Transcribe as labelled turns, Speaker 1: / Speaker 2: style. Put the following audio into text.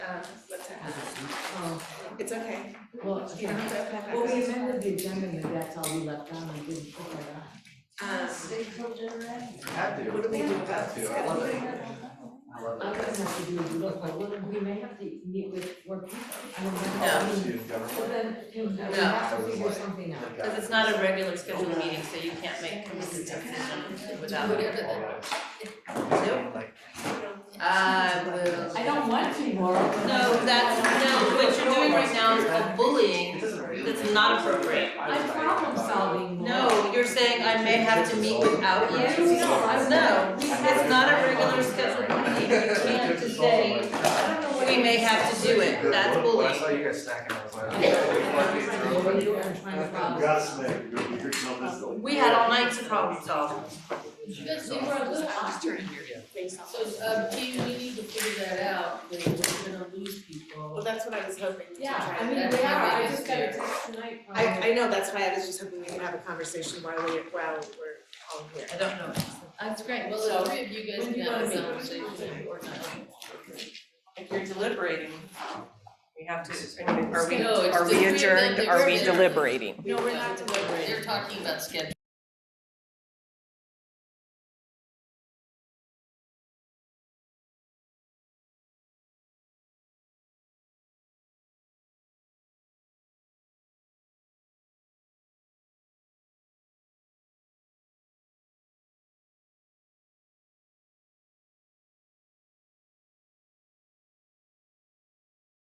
Speaker 1: um, what's that?
Speaker 2: Oh,
Speaker 1: It's okay,
Speaker 2: well,
Speaker 1: you don't have to open up that
Speaker 2: well, we
Speaker 1: message.
Speaker 2: amended the agenda, maybe that's all we left on, we didn't put that on.
Speaker 1: Um,
Speaker 3: Had to.
Speaker 1: What do we do about
Speaker 3: Had to. I love it. I love it.
Speaker 2: I'm gonna have to do a look, like, what- we may have to meet with work people, I don't know.
Speaker 3: I
Speaker 2: I
Speaker 3: was
Speaker 2: mean,
Speaker 3: in government.
Speaker 2: But then, you know, we
Speaker 4: No.
Speaker 2: have to figure something out.
Speaker 3: Thank God.
Speaker 4: Because it's not a regular scheduled meeting, so you can't make a decision without. Nope.
Speaker 3: Like,
Speaker 4: I will.
Speaker 2: I don't want to, Laura. but-
Speaker 4: No, that's, no, what you're doing right now is a bullying.
Speaker 3: it doesn't really-
Speaker 4: That's not appropriate.
Speaker 2: I'm problem solving, Laura.
Speaker 4: No, you're saying I may have to meet without you?
Speaker 2: No, I-
Speaker 4: No,
Speaker 2: we have
Speaker 4: it's not a regular scheduled meeting, you can't just say,
Speaker 2: I don't know what
Speaker 4: we may have to do it, that's
Speaker 3: When I
Speaker 4: bullying.
Speaker 3: saw you guys snacking, I was like. "Oh,
Speaker 2: I'm trying to do, I'm trying to follow.
Speaker 5: Godsmack, you're, you're telling us.
Speaker 4: Uh, We had all night to problem solve.
Speaker 6: Because we were a little off,
Speaker 1: during your face off.
Speaker 6: so, um, T, we need to figure that out, that we're gonna lose
Speaker 1: Well,
Speaker 6: people.
Speaker 1: that's what I was hoping to
Speaker 2: Yeah,
Speaker 1: try
Speaker 2: I
Speaker 1: to-
Speaker 2: mean, we are, I just got a text tonight from.
Speaker 1: I, I know, that's why I was just hoping we could have a conversation while we're, while we're all here.
Speaker 4: I don't know.
Speaker 6: That's great. Well,
Speaker 4: So,
Speaker 6: the three of you guys
Speaker 2: when
Speaker 6: can
Speaker 2: you
Speaker 6: have
Speaker 2: wanna
Speaker 6: a
Speaker 2: meet?
Speaker 6: conversation or not.
Speaker 4: If you're deliberating, we have to, are we,
Speaker 6: No, it's
Speaker 4: are we
Speaker 6: the three of them,
Speaker 4: adjourned,
Speaker 6: they're-
Speaker 4: are we
Speaker 6: they're-
Speaker 4: deliberating?
Speaker 1: No, we're not deliberating.
Speaker 6: They're talking about schedule.